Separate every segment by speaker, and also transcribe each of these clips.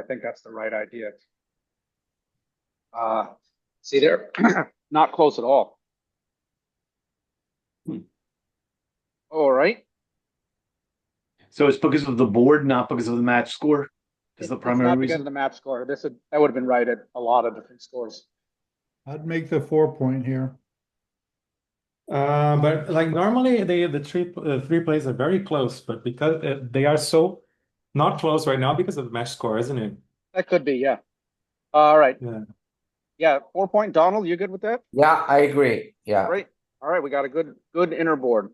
Speaker 1: I think that's the right idea. Uh, see, they're not close at all.
Speaker 2: Hmm.
Speaker 1: All right,
Speaker 2: So it's because of the board, not because of the match score? Is the
Speaker 1: It's
Speaker 2: primary
Speaker 1: not because of
Speaker 2: reason?
Speaker 1: The map score, this, would- that would have been right at a lot of different scores.
Speaker 3: I'd make the four point here. Uh, but like normally they the three uh, three plays are very close, but because uh, they are so not close right now because of the match score, isn't it?
Speaker 1: That could be, yeah. All right.
Speaker 3: Yeah.
Speaker 1: Yeah, four point, Donald, you good with that?
Speaker 4: Yeah, I agree. Yeah.
Speaker 1: Great. All right, we got a good, good inner board.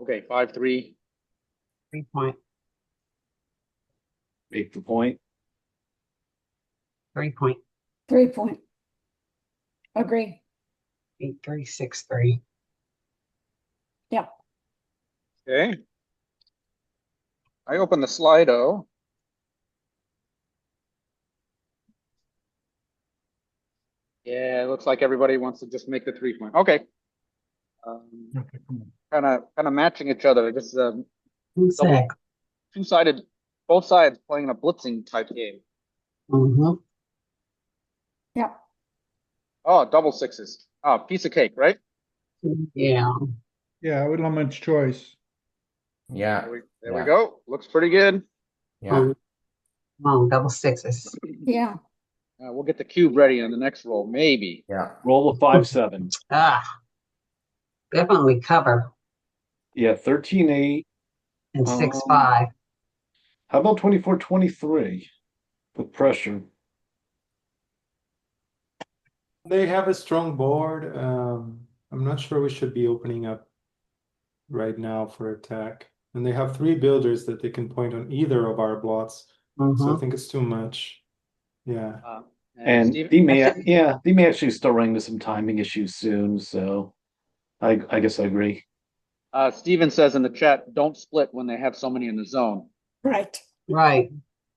Speaker 1: Okay, five, three,
Speaker 5: point,
Speaker 2: Make the point.
Speaker 5: three point,
Speaker 6: Three point. Agree.
Speaker 5: eight, three, six, three,
Speaker 1: okay. I open the Slido. Yeah, it looks like everybody wants to just make the three point, okay. Um,
Speaker 3: Okay, come on.
Speaker 1: kinda, kinda matching each other, just, um,
Speaker 5: two,
Speaker 1: Double.
Speaker 5: six.
Speaker 1: two-sided, both sides playing a blitzing type game.
Speaker 5: Mm-hmm.
Speaker 6: Yep.
Speaker 1: Oh, double sixes. Oh, piece of cake, right?
Speaker 5: Yeah,
Speaker 3: Yeah, with not much choice.
Speaker 4: Yeah.
Speaker 1: There we, there we
Speaker 4: Yeah.
Speaker 1: go. Looks pretty good.
Speaker 4: Yeah.
Speaker 5: long double sixes.
Speaker 6: Yeah,
Speaker 1: Uh, we'll get the cube ready on the next roll, maybe.
Speaker 4: Yeah.
Speaker 2: Roll a five, seven.
Speaker 5: Ah, definitely cover
Speaker 2: Yeah, thirteen, eight.
Speaker 5: and six,
Speaker 1: Oh.
Speaker 2: Um,
Speaker 5: five.
Speaker 2: How about twenty-four, twenty-three? With pressure.
Speaker 7: They have a strong board. Um, I'm not sure we should be opening up right now for attack. And they have three builders that they can point on either of our blots. So
Speaker 3: Uh-huh.
Speaker 7: I
Speaker 5: Mhm.
Speaker 7: think it's too much. Yeah.
Speaker 1: Uh,
Speaker 2: And
Speaker 1: Steve-
Speaker 2: they may, yeah, they may actually start running into some timing issues soon, so I, I guess I agree.
Speaker 1: Uh, Steven says in the chat, don't split when they have so many in the zone.
Speaker 6: right.
Speaker 5: Right.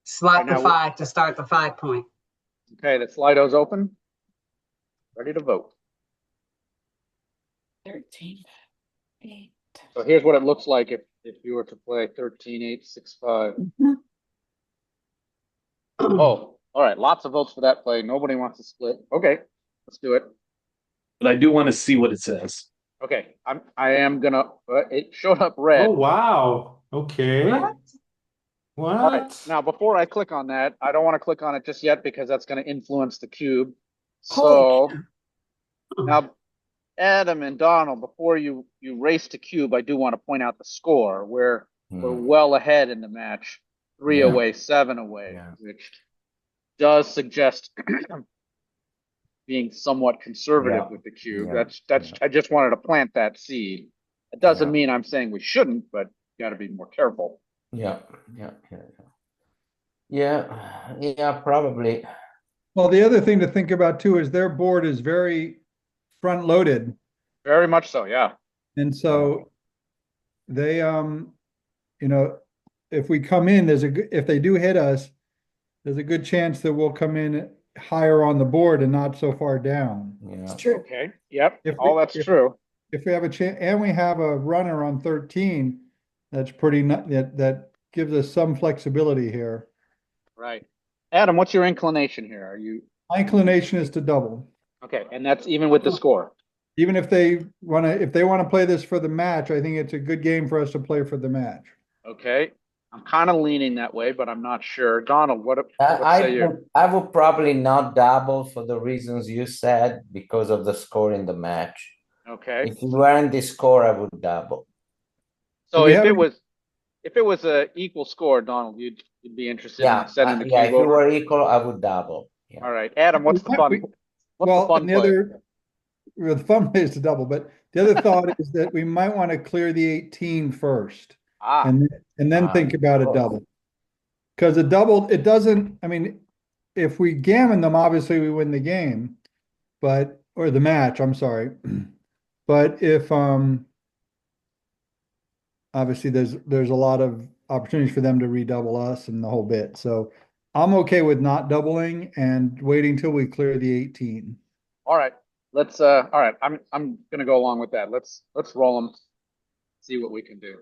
Speaker 5: Slot
Speaker 1: Right
Speaker 5: the
Speaker 1: now-
Speaker 5: five to start the five point.
Speaker 1: Okay, the Slido's open. Ready to vote.
Speaker 6: Thirteen. Eight.
Speaker 1: So here's what it looks like if, if you were to play thirteen, eight, six, five.
Speaker 6: Mhm.
Speaker 1: Oh, all right, lots of votes for that play. Nobody wants to split. Okay, let's do it.
Speaker 2: But I do want to see what it says.
Speaker 1: Okay, I'm, I am gonna, uh, it showed up red.
Speaker 7: Oh, wow. Okay.
Speaker 5: What?
Speaker 1: All right,
Speaker 7: What?
Speaker 1: Now, before I click on that, I don't want to click on it just yet because that's going to influence the cube. So
Speaker 6: Holy
Speaker 1: now, Adam and Donald, before you, you race to cube, I do want to point out the score. We're, we're
Speaker 4: Mm.
Speaker 1: well ahead in the match, three
Speaker 4: Yeah.
Speaker 1: away, seven away,
Speaker 4: Yeah.
Speaker 1: which does suggest being somewhat conservative
Speaker 4: Yeah.
Speaker 1: with the cube.
Speaker 4: Yeah.
Speaker 1: That's, that's, I just wanted to plant that seed. It doesn't
Speaker 4: Yeah.
Speaker 1: mean I'm saying we shouldn't, but you got to be more careful.
Speaker 4: Yeah. Yeah. Yeah. Yeah. Yeah. Yeah. Probably.
Speaker 8: Well, the other thing to think about too is their board is very front-loaded,
Speaker 1: Very much so, yeah.
Speaker 8: and so they, um, you know, if we come in, there's a, good if they do hit us, there's a good chance that we'll come in higher on the board and not so far down.
Speaker 4: Yeah.
Speaker 6: It's true.
Speaker 1: Okay, yep,
Speaker 8: If we-
Speaker 1: all that's
Speaker 8: if-
Speaker 1: true.
Speaker 8: If we have a chance, and we have a runner on thirteen, that's pretty, nu- that, that gives us some flexibility here.
Speaker 1: Right. Adam, what's your inclination here? Are you,
Speaker 8: My inclination is to double.
Speaker 1: okay, and that's even with the score.
Speaker 8: Even if they wanna, if they wanna play this for the match, I think it's a good game for us to play for the match.
Speaker 1: Okay, I'm kind of leaning that way, but I'm not sure. Donald, what,
Speaker 4: Uh,
Speaker 1: what
Speaker 4: I
Speaker 1: say you?
Speaker 4: would, I would probably not double for the reasons you said because of the score in the match.
Speaker 1: Okay,
Speaker 4: If it weren't the score, I would double.
Speaker 1: so
Speaker 8: we
Speaker 1: if
Speaker 8: have
Speaker 1: it
Speaker 8: any-
Speaker 1: was, if it was a equal score, Donald, you'd, you'd be interested
Speaker 4: Yeah,
Speaker 1: in sending
Speaker 4: uh,
Speaker 1: the
Speaker 4: yeah. If
Speaker 1: cube
Speaker 4: you
Speaker 1: over?
Speaker 4: were equal, I would double. Yeah.
Speaker 1: All right, Adam, what's the
Speaker 8: We-
Speaker 1: fun,
Speaker 8: we-
Speaker 1: what's the
Speaker 8: Well,
Speaker 1: fun
Speaker 8: and the
Speaker 1: play?
Speaker 8: other, well, the fun play is to double, but the other thought is that we might want to clear the 18 first
Speaker 1: Ah,
Speaker 8: and, and then
Speaker 4: Ah,
Speaker 8: think about a
Speaker 4: cool.
Speaker 8: double. Because a double, it doesn't, I mean, if we gammon them, obviously we win the game, but, or the match, I'm sorry. But if, um, obviously there's, there's a lot of opportunities for them to redouble us and the whole bit. So I'm okay with not doubling and waiting till we clear the 18.
Speaker 1: all right, let's, uh, all right, I'm, I'm gonna go along with that. Let's, let's roll them. See what we can do.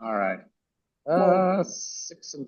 Speaker 1: All right, uh, six and